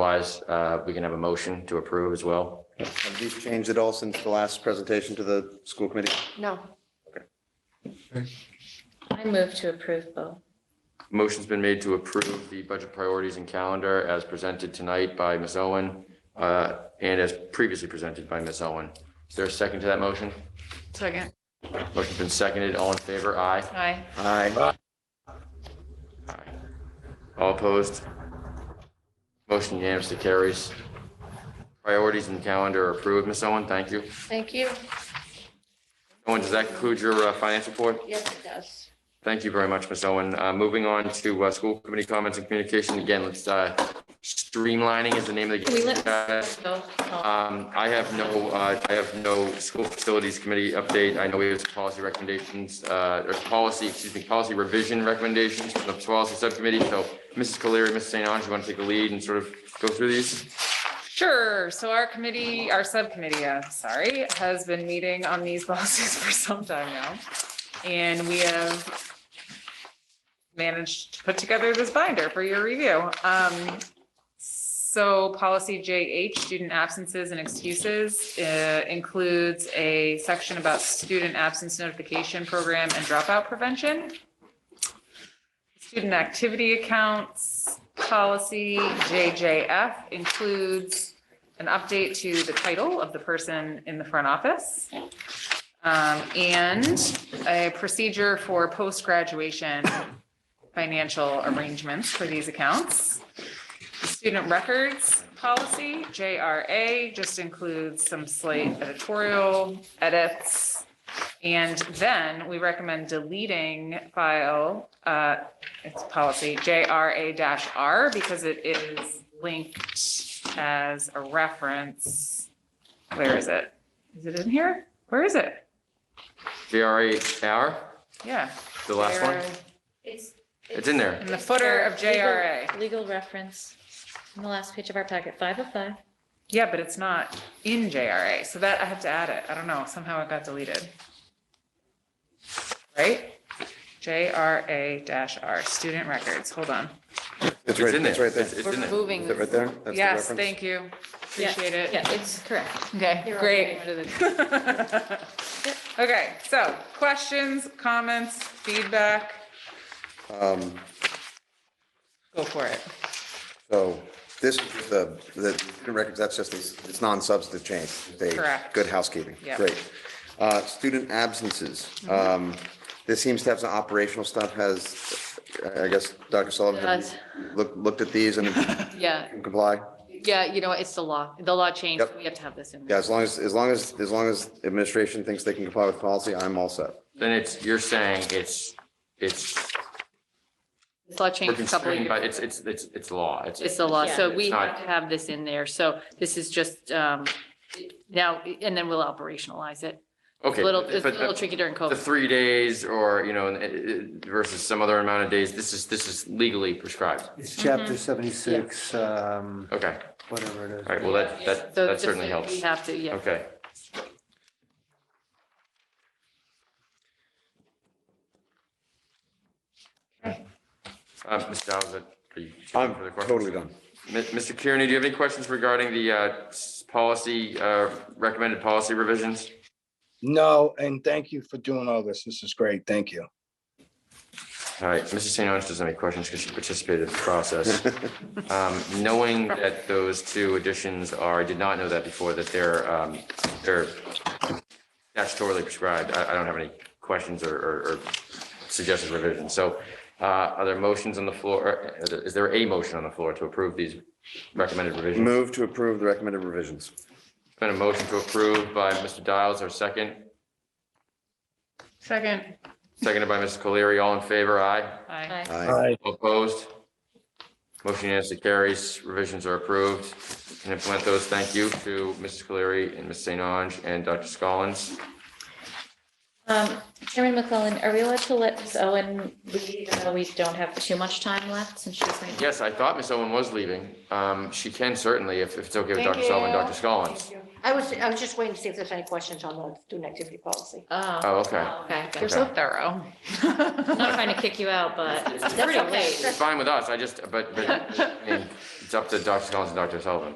Otherwise, uh, we can have a motion to approve as well. Have these changed at all since the last presentation to the school committee? No. I move to approve both. Motion's been made to approve the budget priorities and calendar as presented tonight by Ms. Owen uh, and as previously presented by Ms. Owen. Is there a second to that motion? Second. Motion's been seconded. All in favor? Aye. Aye. Aye. Aye. All opposed? Motion unanimously carries. Priorities and calendar are approved. Ms. Owen, thank you. Thank you. Owen, does that conclude your uh, finance report? Yes, it does. Thank you very much, Ms. Owen. Uh, Moving on to uh, school committee comments and communication. Again, let's, uh, streamlining is the name of the. Can we let? Guys, Um, I have no, uh, I have no school facilities committee update. I know we have some policy recommendations, uh, or policy, excuse me, policy revision recommendations from the policy subcommittee. So Mrs. Colery, Mrs. St. Ange, you want to take the lead and sort of go through these? Sure. So our committee, our subcommittee, uh, sorry, has been meeting on these policies for some time now. And we have managed to put together this binder for your review. Um, so policy JH, student absences and excuses, uh, includes a section about student absence notification program and dropout prevention. Student activity accounts policy JJF includes an update to the title of the person in the front office. um, and a procedure for post-graduation financial arrangements for these accounts. Student records policy, JRA, just includes some slight editorial edits. And then we recommend deleting file, uh, it's policy JRA R because it is linked as a reference. Where is it? Is it in here? Where is it? JRAR, Yeah. the last one? It's. It's in there. In the footer of JRA. Legal reference on the last page of our packet, five of five. Yeah, but it's not in JRA, so that I have to add it. I don't know, somehow it got deleted. Right? JRA dash R, student records, hold on. It's right, in it's right there. It's Is it's in there. moving. it right there? That's the Yes, reference? thank you. Yeah, Appreciate it. Yeah, it's correct. Okay, You're great. Yep. Okay, so questions, comments, feedback, Um, go for it. So this, is the, the student records, that's just, it's it's non-substantive change. They, Correct. good housekeeping. Yeah. Mm-hmm. Great. Uh, Student absences. Um, This seems to have some operational stuff. Has, I guess, Dr. Sullivan, have Does. you looked, looked at these and Yeah, can comply? yeah, you know, it's the law. The law changed. Yep. We have to have this in. Yeah, as long as, as long as, as long as administration thinks they can comply with policy, I'm all set. Then it's, you're saying it's, it's, This law we're changed a couple of constrained by, years. it's, it's, it's, it's law. It's the law. So Yeah. we It's not- have to have this in there. So this is just um now, and then we'll operationalize it. It's Okay. a little, but- it's a but- little tricky during the COVID. three days or, you know, versus some other amount of days, this is, this is legally prescribed. It's chapter seventy-six, um, Okay, whatever it is. all right, well, that, that, So that just certainly that helps. We have to, yeah. Okay. Uh, Ms. Downs, are you? I'm for the question? totally done. Mi- Mr. Kearney, do you have any questions regarding the, uh, s- policy, uh, recommended policy revisions? No, and thank you for doing all this. This is great. Thank you. All right, Mrs. St. Ange doesn't have any questions because she participated in the process. Um, Knowing that those two additions are, I did not know that before, that they're, um, they're statutorily prescribed. I, I don't have any questions or, or or suggested revisions. So uh, are there motions on the floor? Uh, Is there a motion on the floor to approve these recommended revisions? Move to approve the recommended revisions. Been a motion to approve by Mr. Dials, our second, Second. seconded by Mrs. Colery. All in favor? Aye. Aye. Aye. Aye. Aye. All Opposed? Motion unanimously carries. Revisions are approved. And implement those. Thank you to Mrs. Cleary and Ms. St. Ange and Dr. Scollins. Um, Chairman McClellan, are we allowed to let Ms. Owen leave? even though We don't have too much time left since she's. leaving? Yes, I thought Ms. Owen was leaving. Um, She can certainly, if if it's okay with Thank Dr. Sullivan, you. Dr. Scollins. I was, I was just waiting to see if there's any questions on the student activity policy. Oh, Oh, okay. okay. You're You're so so thorough. I'm Not trying to kick you out, but it's That's pretty okay. late. It's fine with us. I just, but, but I mean, It's up to Dr. Collins and Dr. Sullivan.